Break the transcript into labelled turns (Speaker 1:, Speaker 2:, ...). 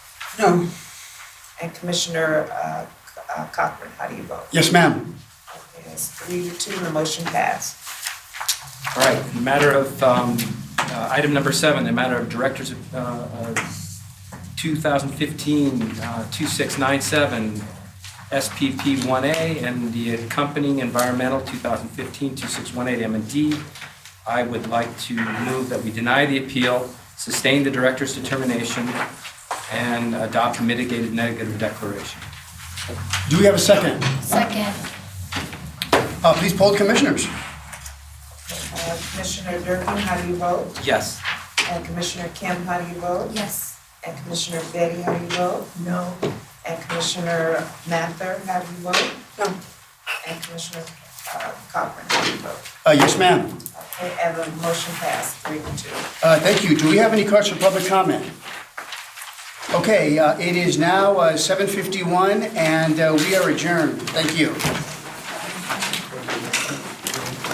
Speaker 1: No,
Speaker 2: And Commissioner uh, C- uh, Cochran, how do you vote?
Speaker 3: Yes, ma'am.
Speaker 2: Yes, three to two, the motion passed.
Speaker 4: All right, in the matter of, um, uh, item number seven, the matter of Directors of, uh, uh, 2015, uh, 2697, SPP 1A, and the accompanying environmental 2015, 2618 m and D. I would like to move that we deny the appeal, sustain the director's determination, and adopt a mitigated negative declaration.
Speaker 3: Do we have a second?
Speaker 5: Second.
Speaker 3: Uh, Please poll the commissioners.
Speaker 2: Uh, Commissioner Durkin, how do you vote?
Speaker 4: Yes.
Speaker 2: And Commissioner Kim, how do you vote?
Speaker 5: Yes.
Speaker 2: And Commissioner Betty, how do you vote?
Speaker 1: no,
Speaker 2: And Commissioner Mather, how do you vote?
Speaker 1: no.
Speaker 2: And Commissioner uh, Cochran, how do you vote?
Speaker 3: Uh, Yes, ma'am.
Speaker 2: Okay, and the motion passed, three to two.
Speaker 3: Uh, Thank you. Do we have any cards for public comment? Okay, uh, it is now uh, 7:51, and uh, we are adjourned. Thank you.